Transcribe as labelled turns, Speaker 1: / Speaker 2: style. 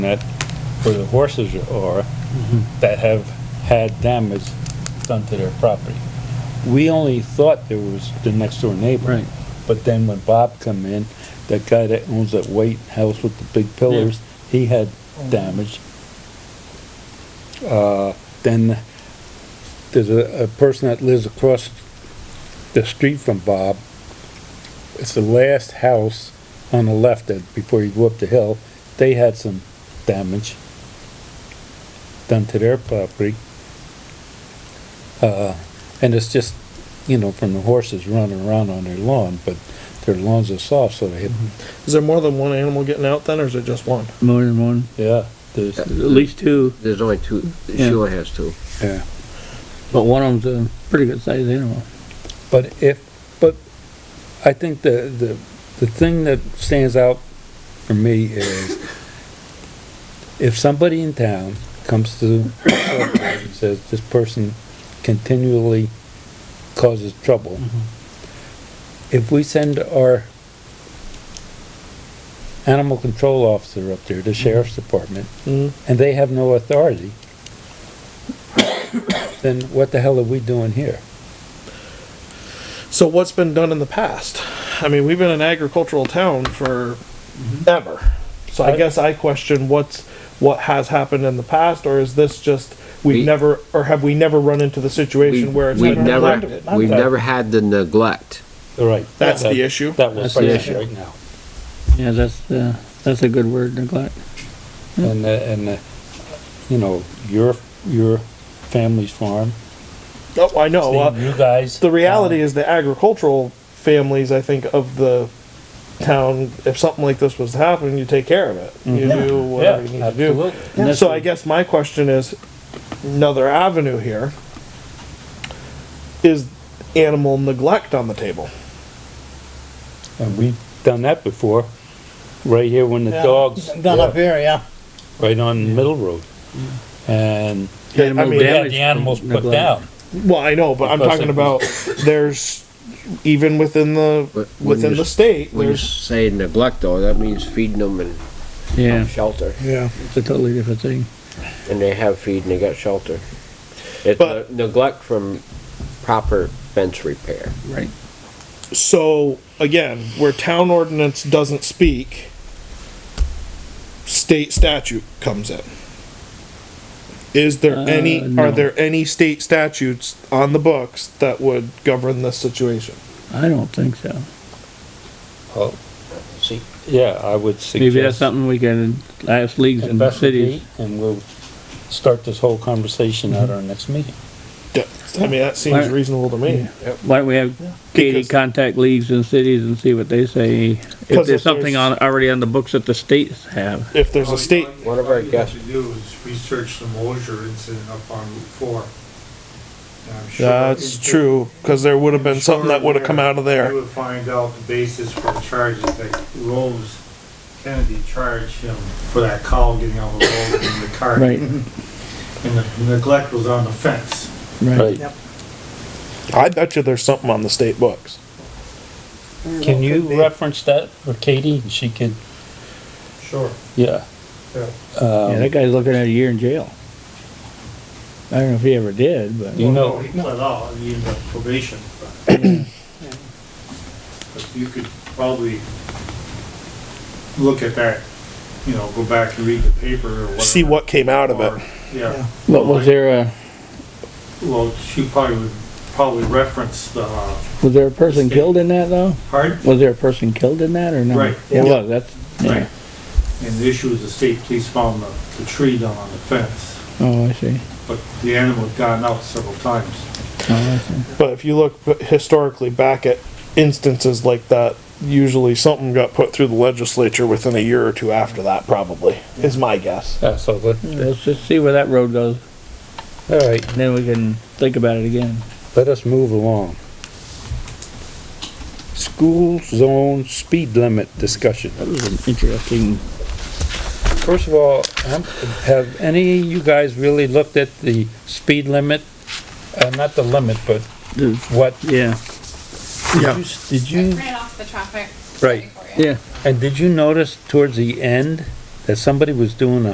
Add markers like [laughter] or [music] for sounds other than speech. Speaker 1: that where the horses are, that have had damage done to their property. We only thought there was the next door neighbor.
Speaker 2: Right.
Speaker 1: But then when Bob come in, that guy that owns that white house with the big pillars, he had damage. Uh, then there's a, a person that lives across the street from Bob. It's the last house on the left that, before you go up the hill, they had some damage done to their property. Uh, and it's just, you know, from the horses running around on their lawn, but their lawns are soft, so they hit,
Speaker 3: Is there more than one animal getting out then, or is it just one?
Speaker 2: More than one,
Speaker 1: yeah, there's,
Speaker 2: at least two,
Speaker 4: There's only two,
Speaker 2: Yeah.
Speaker 4: Sheila has two.
Speaker 1: yeah.
Speaker 2: but one of them's a pretty good sized animal.
Speaker 1: But if, but I think the, the, the thing that stands out for me is if somebody in town comes to the select board and says, this person continually causes trouble, if we send our animal control officer up there, the sheriff's department,
Speaker 4: Mm-hmm.
Speaker 3: Mm.
Speaker 1: and they have no authority, [coughs] then what the hell are we doing here?
Speaker 3: So what's been done in the past? I mean, we've been an agricultural town for
Speaker 4: Mm-hmm.
Speaker 3: ever. So I
Speaker 1: I-
Speaker 3: guess I question what's, what has happened in the past, or is this just,
Speaker 4: We-
Speaker 3: we've never, or have we never run into the
Speaker 4: We-
Speaker 3: situation where it's
Speaker 4: We've
Speaker 3: been
Speaker 4: never,
Speaker 3: neglected?
Speaker 4: we've never had the neglect.
Speaker 1: Right.
Speaker 3: That's
Speaker 1: That-
Speaker 3: the issue.
Speaker 1: That was
Speaker 2: That's the
Speaker 1: present
Speaker 2: issue.
Speaker 1: right now.
Speaker 2: Yeah, that's, uh, that's a good word, neglect. Hmm.
Speaker 1: And, uh, and, uh, you know, your, your family's farm.
Speaker 3: Oh, I know.
Speaker 1: seeing
Speaker 3: uh,
Speaker 1: You guys. uh,
Speaker 3: The reality is the agricultural families, I think, of the town, if something like this was to happen, you take care of it. You
Speaker 4: Mm-hmm.
Speaker 3: do whatever you need to do.
Speaker 2: And that's
Speaker 3: So
Speaker 2: what-
Speaker 3: I guess my question is, another avenue here, is animal neglect on the table?
Speaker 1: And we've done that before, right here when the
Speaker 5: Yeah,
Speaker 1: dogs,
Speaker 5: Done up here, yeah.
Speaker 1: right on Middle Road. And
Speaker 3: I
Speaker 1: we
Speaker 3: mean,
Speaker 1: had
Speaker 2: damage
Speaker 1: the animals
Speaker 2: from
Speaker 1: put
Speaker 2: Hmm. neglect.
Speaker 1: down.
Speaker 3: Well, I know, but I'm
Speaker 1: Because
Speaker 3: talking
Speaker 1: it-
Speaker 3: about, there's, even within the,
Speaker 4: But when
Speaker 3: within
Speaker 4: you-
Speaker 3: the state,
Speaker 4: When you
Speaker 3: there's,
Speaker 4: say neglect though, that means feeding them and
Speaker 2: Yeah,
Speaker 4: shelter.
Speaker 3: yeah.
Speaker 2: it's a totally different thing.
Speaker 4: And they have feed and they got shelter. It's
Speaker 3: But-
Speaker 4: ne- neglect from proper fence repair.
Speaker 2: Right.
Speaker 3: So, again, where town ordinance doesn't speak, state statute comes in. Is there
Speaker 2: Uh,
Speaker 3: any,
Speaker 2: no.
Speaker 3: are there any state statutes on the books that would govern this situation?
Speaker 2: I don't think so.
Speaker 1: Oh,
Speaker 4: See,
Speaker 1: Yeah, I would suggest.
Speaker 2: Maybe that's something we can ask leagues and cities. Mm-hmm.
Speaker 1: investigate And we'll start this whole conversation at our next meeting.
Speaker 3: Yeah, I mean, that seems
Speaker 2: Alright.
Speaker 3: reasonable to me.
Speaker 2: Why don't we have Katie
Speaker 3: Because-
Speaker 2: contact leagues and cities and see what they say? If
Speaker 3: Because
Speaker 2: there's
Speaker 3: if
Speaker 2: something
Speaker 3: there's-
Speaker 2: on, already on the books that the states have.
Speaker 3: If there's a state,
Speaker 4: One of our
Speaker 6: All you have
Speaker 4: guests-
Speaker 6: to do is research the Mosher incident up on Route Four. And I'm sure
Speaker 3: that's
Speaker 6: into-
Speaker 3: true, cause there would have been
Speaker 6: I'm
Speaker 3: something
Speaker 6: sure
Speaker 3: that would have come out of
Speaker 6: You
Speaker 3: there.
Speaker 6: would find out the basis for the charges that Rose Kennedy charged him for that cow getting on the road in the car.
Speaker 2: Right.
Speaker 6: And the neglect was on the fence.
Speaker 1: Right.
Speaker 3: I bet you there's something on the state books.
Speaker 1: Can you reference that for Katie? and She could,
Speaker 6: Sure.
Speaker 1: yeah.
Speaker 6: Yeah.
Speaker 2: Yeah, that guy's looking at a year in jail. I don't know if he ever did, but.
Speaker 1: You know-
Speaker 6: He pled out, he ended up probation. but-
Speaker 3: [clears throat]
Speaker 6: But you could probably look at that, you know, go back and read the paper or whatever.
Speaker 3: See what came out of
Speaker 6: Or-
Speaker 3: it.
Speaker 6: Yeah,
Speaker 2: What was there uh, a,
Speaker 6: well, she probably would, probably reference the, uh,
Speaker 2: was there a person killed in that though?
Speaker 6: pardon?
Speaker 2: Was there a person killed in that or no?
Speaker 6: Right.
Speaker 2: There was, that's, yeah.
Speaker 6: Right. And the issue is the state police found the, the tree down on the fence,
Speaker 2: Oh, I see.
Speaker 6: but the animal had gotten out several times.
Speaker 2: Oh, I see.
Speaker 3: But if you look b- historically back at instances like that, usually something got put through the legislature within a year or two after that, probably, is my guess.
Speaker 1: Yeah, so let-
Speaker 2: Let's just see where that road goes,
Speaker 1: all right,
Speaker 2: and then we can think about it again.
Speaker 1: let us move along. School zone speed limit discussion.
Speaker 2: That was an interesting.
Speaker 1: First of all, um, have any of you guys really looked at the speed limit? Uh, not the limit, but what,
Speaker 2: Yeah,
Speaker 3: Yeah.
Speaker 1: did you,
Speaker 7: Right off the traffic.
Speaker 1: Mm. Right.
Speaker 7: for you.
Speaker 2: yeah.
Speaker 1: and did you notice towards the end that somebody was doing a